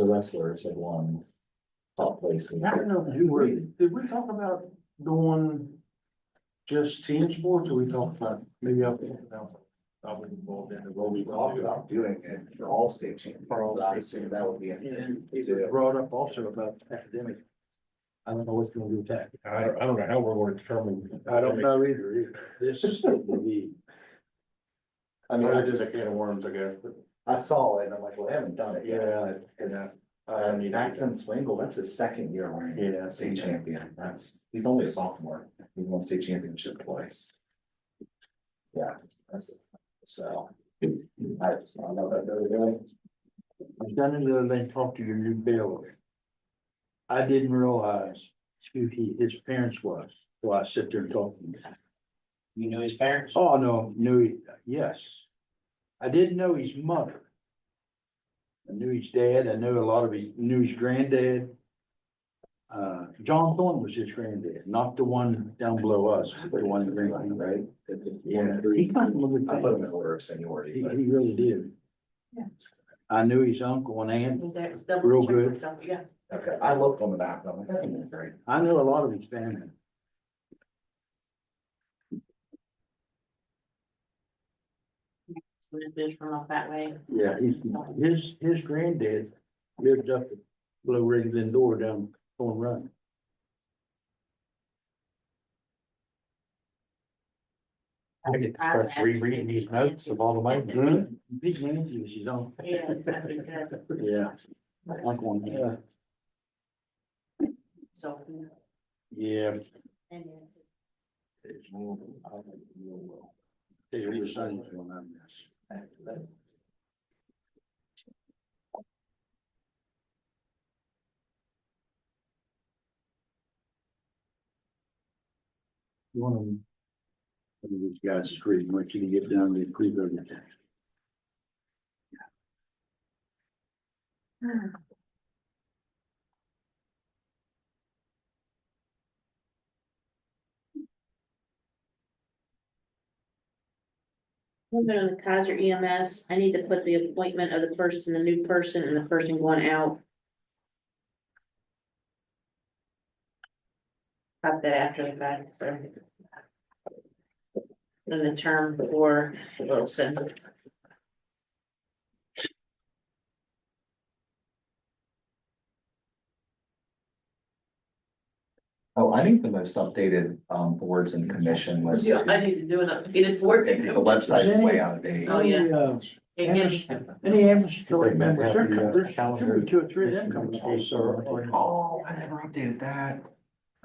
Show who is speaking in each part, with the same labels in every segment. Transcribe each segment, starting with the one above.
Speaker 1: the wrestlers had won top places.
Speaker 2: I don't know, did we, did we talk about going just team sports or we talked about maybe I'll think about. I would involve in the
Speaker 3: Well, we talked about doing it for all state champions,
Speaker 2: For all
Speaker 3: but I
Speaker 2: state
Speaker 3: assume that would be.
Speaker 2: And it was brought up also about academic. I don't know what's gonna do with that.
Speaker 4: I don't, I don't know how we're going to determine.
Speaker 2: I don't know either, either. This is gonna be.
Speaker 1: I mean, I
Speaker 4: It's
Speaker 1: just,
Speaker 4: just a can of worms, I guess. but-
Speaker 1: I saw it and I'm like, well, they haven't done it yet.
Speaker 4: Yeah,
Speaker 1: but it's- I
Speaker 4: I
Speaker 1: mean,
Speaker 4: mean,
Speaker 1: Maxon Swingle, that's his second year running
Speaker 4: Yeah,
Speaker 1: state champion. That's, he's only a sophomore. He won state championship twice. Yeah, that's, so. I just, I know that really good.
Speaker 2: I've done it other than talk to your new bailiff. I didn't realize who he, his parents was, so I sit there and talk to him.
Speaker 5: You know his parents?
Speaker 2: Oh, no, knew, yes. I didn't know his mother. I knew his dad, I knew a lot of his, knew his granddad. Uh, John Thorne was his granddad, not the one down below us, but the one that ran, right? Yeah, he kind of looked
Speaker 1: I put him
Speaker 2: like,
Speaker 1: in order of
Speaker 2: he,
Speaker 1: seniority,
Speaker 2: he
Speaker 1: but
Speaker 2: really did.
Speaker 6: Yeah.
Speaker 2: I knew his uncle and aunt,
Speaker 6: That's double
Speaker 2: Real
Speaker 6: check
Speaker 2: good.
Speaker 6: myself, Yeah,
Speaker 1: okay, I looked on the back, but I'm like, that didn't look great.
Speaker 2: I know a lot of his family.
Speaker 6: so it is from off that way.
Speaker 2: Yeah, he's, his, his granddad lived up at Blue Ridge Door down Thorn Run.
Speaker 5: I get to start rereading these notes of all the money.
Speaker 2: Mm-hmm. Big man, he was his own.
Speaker 6: Yeah, I think so.
Speaker 2: Yeah. Like one, yeah,
Speaker 6: So.
Speaker 2: yeah.
Speaker 6: and it's-
Speaker 2: It's more, I think, real well. They were sons when I missed. One of them. One of these guys is crazy, much you can get down to Cleveland.
Speaker 6: We'll go to the Kaiser EMS. I need to put the appointment of the person, the new person and the person going out. Pop that after the fact, so. And the term for Wilson.
Speaker 1: Oh, I think the most updated, um, boards and commission was.
Speaker 7: Yeah, I need to do it up, get it for it.
Speaker 1: Because the website's way out of date.
Speaker 7: Oh, yeah.
Speaker 2: Any, uh,
Speaker 7: And
Speaker 2: Amherst-
Speaker 7: get-
Speaker 2: Any Amherst
Speaker 4: Wait
Speaker 2: County
Speaker 4: a minute,
Speaker 2: members,
Speaker 4: we have the, uh,
Speaker 2: there come- there's
Speaker 4: calendar.
Speaker 2: should be two or three of them coming. to us, sir.
Speaker 1: Oh, I never updated that.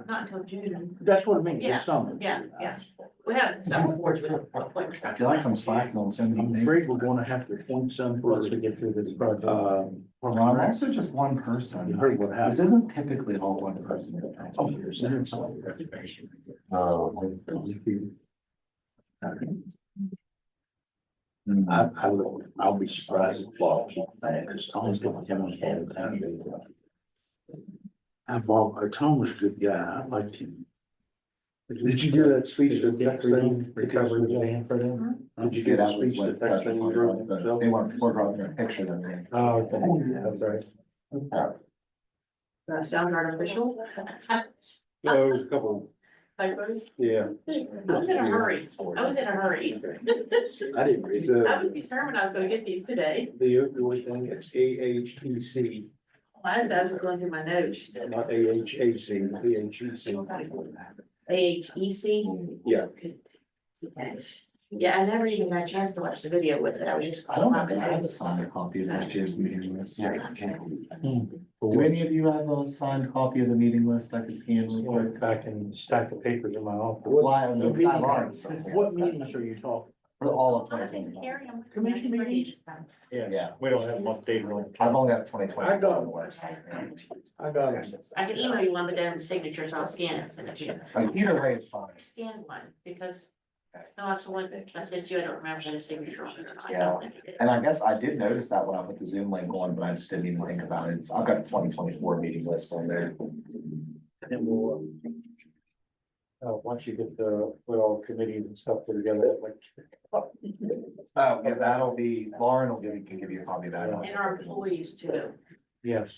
Speaker 7: Not until June.
Speaker 2: That's what I mean,
Speaker 7: Yeah,
Speaker 2: this summer.
Speaker 7: yeah, yeah. We have several boards with appointments.
Speaker 1: I feel like I'm slacking on so many
Speaker 2: I'm
Speaker 1: things.
Speaker 2: afraid we're gonna have to appoint some for us to get through this project. Um,
Speaker 1: Well, I'm also just one person.
Speaker 2: You heard what
Speaker 1: This
Speaker 2: happened. Oh,
Speaker 1: isn't typically all one person. Oh, at a time. Hmm.
Speaker 2: I, I will, I'll be surprised if Bob, as long as Tom was head of town. I, Bob, uh, Tom was a good guy, I liked him. Did you do that speech
Speaker 4: that Dexter- recovery plan
Speaker 2: for
Speaker 7: them?
Speaker 2: Did you do
Speaker 1: Yeah,
Speaker 2: that
Speaker 1: that was
Speaker 2: speech
Speaker 1: what-
Speaker 2: that Dexter
Speaker 1: that's
Speaker 2: you
Speaker 1: what-
Speaker 2: wrote
Speaker 1: but
Speaker 2: himself?
Speaker 1: They
Speaker 4: Oh,
Speaker 1: weren't, we're drawing a picture of me.
Speaker 2: Oh, okay.
Speaker 1: That's
Speaker 2: right.
Speaker 1: Oh,
Speaker 7: That sounds Uh, artificial.
Speaker 4: Yeah, there was a couple,
Speaker 7: Like, what is-
Speaker 4: yeah.
Speaker 7: I was in a hurry. I was in a hurry.
Speaker 2: I didn't read
Speaker 7: I was
Speaker 2: that.
Speaker 7: determined I was gonna get these today.
Speaker 4: The opioid thing, it's A H T C,
Speaker 7: As I was going through my notes.
Speaker 4: not A H A C, B H E C.
Speaker 6: A H E C.
Speaker 4: Yeah.
Speaker 7: Yeah, I never even got a chance to watch the video with it. I was just.
Speaker 1: I don't know, if I have a signed copy of last year's meeting list. Do any of you have a signed copy of the meeting list I could scan? real quick?
Speaker 4: Back in stack of papers in my office.
Speaker 1: Well, I don't know.
Speaker 2: What meeting-
Speaker 1: Five hours.
Speaker 2: What meetings are you talking?
Speaker 1: For all of twenty
Speaker 7: I'm
Speaker 1: twenty.
Speaker 7: carry 'em.
Speaker 2: Commission meetings?
Speaker 4: Yes,
Speaker 1: Yeah.
Speaker 4: we don't have them updated on.
Speaker 1: I've only got twenty twenty.
Speaker 4: I got-
Speaker 2: I got
Speaker 7: I can email you one, but then the signatures, I'll scan it, and send it to you.
Speaker 1: Like, either way, it's fine.
Speaker 7: Scan one, because, no, that's the one that I sent you, I don't remember the signature on it. I
Speaker 1: Yeah.
Speaker 7: don't think it is.
Speaker 1: And I guess I did notice that when I put the Zoom link on, but I just didn't even think about it. So I've got the twenty twenty-four meeting list on there.
Speaker 4: And we'll, uh, uh, once you get the, put all committees and stuff together, like.
Speaker 1: Uh, Oh, yeah, that'll be, Lauren will give, you- can give you a copy of that.
Speaker 7: And our employees too.
Speaker 2: Yes.